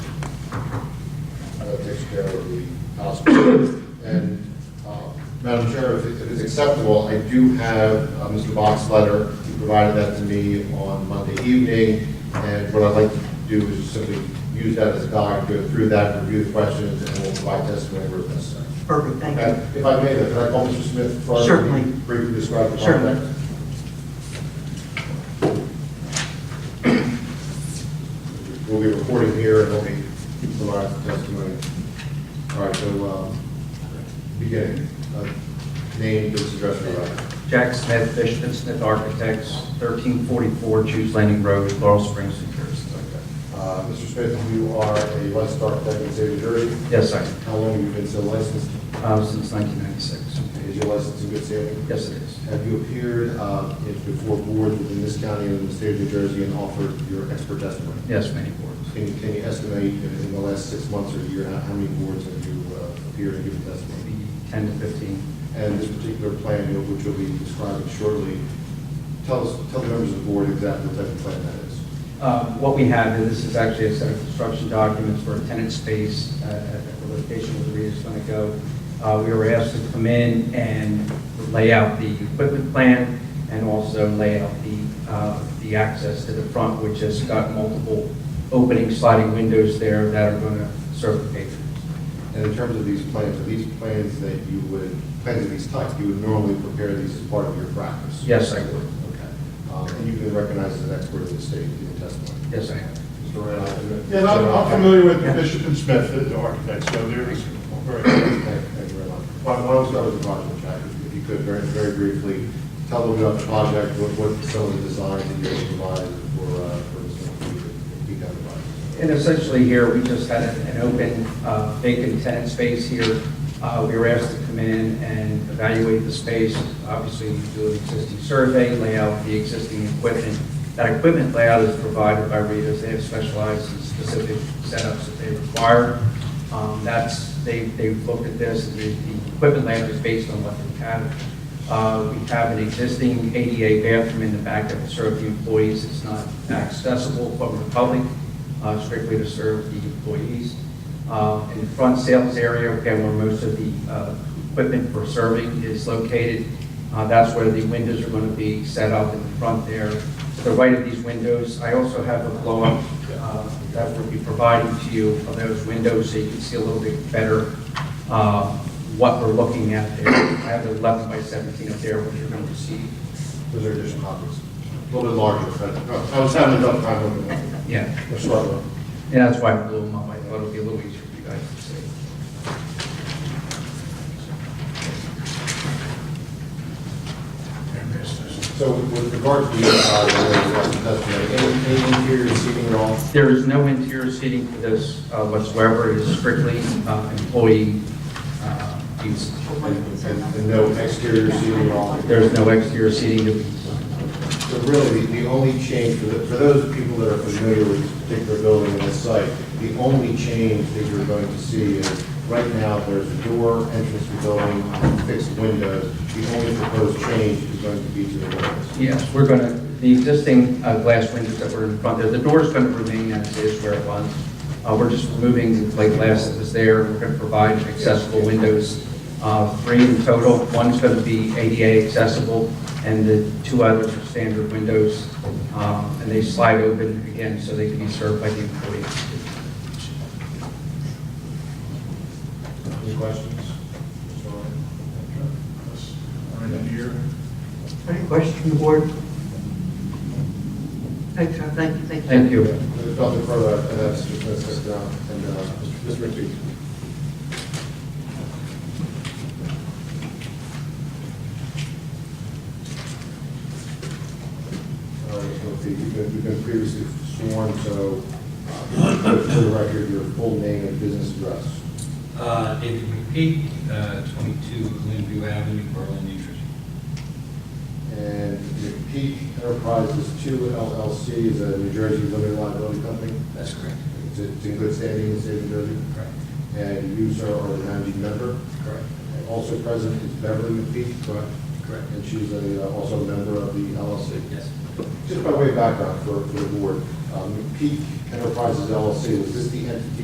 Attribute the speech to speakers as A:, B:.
A: uh, care of the hospital. And, uh, Madam Chair, if it- if it's acceptable, I do have uh, Mr. Bach's letter, he provided that to me on Monday evening, and what I'd like to do is just simply use that as a guide, go through that, review the questions, and we'll provide testimony where necessary.
B: Perfect, thank
A: And
B: you.
A: if I may, then, can I call Mr. Smith for
B: Certainly.
A: briefly describe the
B: Certainly.
A: project? We'll be recording here and we'll be providing testimony. All right, so, um, beginning, uh, name, business address, and whatever.
C: Jack Smith, Fishman Smith Architects, 1344 Jews Landing Road, Laurel Springs, New Jersey.
A: Uh, Mr. Smith, you are a licensed architect in the state of New Jersey.
C: Yes, I,
A: How long have you been so licensed?
C: uh, since 1996.
A: Is your license in good standing?
C: Yes, it is.
A: Have you appeared uh, in- before boards within this county and in the state of New Jersey and offered your expert testimony?
C: Yes, many boards.
A: Can you, can you estimate in in the last six months or a year, how how many boards have you uh, appeared and given testimony?
C: Maybe 10 to 15.
A: And this particular plan, you know, which you'll be describing shortly, tell us, tell the members of the board exactly what type of plan that is.
C: Uh, What we have, is this is actually a set of construction documents for a tenant space uh, at the location where the reader's going to go. Uh, We were asked to come in and lay out the equipment plan and also lay out the, uh, the access to the front, which has got multiple opening sliding windows there that are going to serve the patrons.
A: And in terms of these plans, are these plans that you would, plans of these types, you would normally prepare these as part of your practice?
C: Yes, I would.
A: Okay. Um, And you've been recognized as an expert in the state in testimony?
C: Yes, I have.
A: Mr. Randolph?
D: Yeah, and I'm I'm familiar with Bishop and Smith, the architects, so there is, very-
A: Thank thank you very much. Why why don't we start with the project, Jack, if- if you could, very, very briefly, tell them about the project, what, what some of the designs that you provided for, uh, for this one, if you could, if you could provide.
C: And essentially here, we just had an an open uh, vacant tenant space here. Uh, We were asked to come in and evaluate the space, obviously do an existing survey, lay out the existing equipment. That equipment layout is provided by Rita's, they have specialized in specific setups that they require. Um, That's, they, they looked at this, and the the equipment layout is based on what they have. Uh, We have an existing ADA bathroom in the back that will serve the employees. It's not accessible from the public, uh, strictly to serve the employees. Uh, In the front sales area, again, where most of the uh, equipment for serving is located, uh, that's where the windows are going to be set up in the front there. To the right of these windows, I also have a blow-up uh, that will be provided to you of those windows so you can see a little bit better uh, what we're looking at there. I have the 11 by 17 up there, which you're going to see.
A: Those are additional copies, a little bit larger, but I was having a tough time looking at them.
C: Yeah,
A: They're smaller.
C: and that's why I blew them up. I thought it would be a little easier for you guys to see.
A: So with regard to the, uh, the testimony, any, any interior seating at all?
C: There is no interior seating for this uh, whatsoever. It is strictly uh, employee uh, use.
A: And and no exterior seating at all?
C: There is no exterior seating to be
A: So really, the the only change, for the- for those people that are familiar with this particular building and this site, the only change that you're going to see is, right now, there's a door entrance to the building, fixed windows. The only proposed change is going to be to the windows.
C: Yes, we're going to, the existing uh, glass windows that were in front there, the door's going to remain as is where it was. Uh, We're just removing the plate glass that was there. We're going to provide accessible windows, uh, three in total. One's going to be ADA accessible, and the two others are standard windows. Um, And they slide open again, so they can be served by the employees.
A: Any questions?
D: I'm in here.
B: Any questions from the board? Thanks, sir, thank you, thank you.
C: Thank you.
A: There's nothing further, and that's just, that's just, uh, and, uh, Mr. McPhee. All right, Mr. McPhee, you've been, you've been previously sworn, so, uh, for the record, your full name and business address.
E: Uh, David McPeak, uh, 22 Glenview Avenue, Berlin, New Jersey.
A: And McPhee Enterprises Two LLC is a New Jersey limited liability company.
E: That's correct.
A: It's it's in good standing in the state of New Jersey.
E: Correct.
A: And you, sir, are the managing member.
E: Correct.
A: And Also present is Beverly McPhee, correct?
E: Correct.
A: And she's a, uh, also a member of the LLC.
E: Yes.
A: Just by way of background for, for the board, um, McPhee Enterprises LLC, was this the entity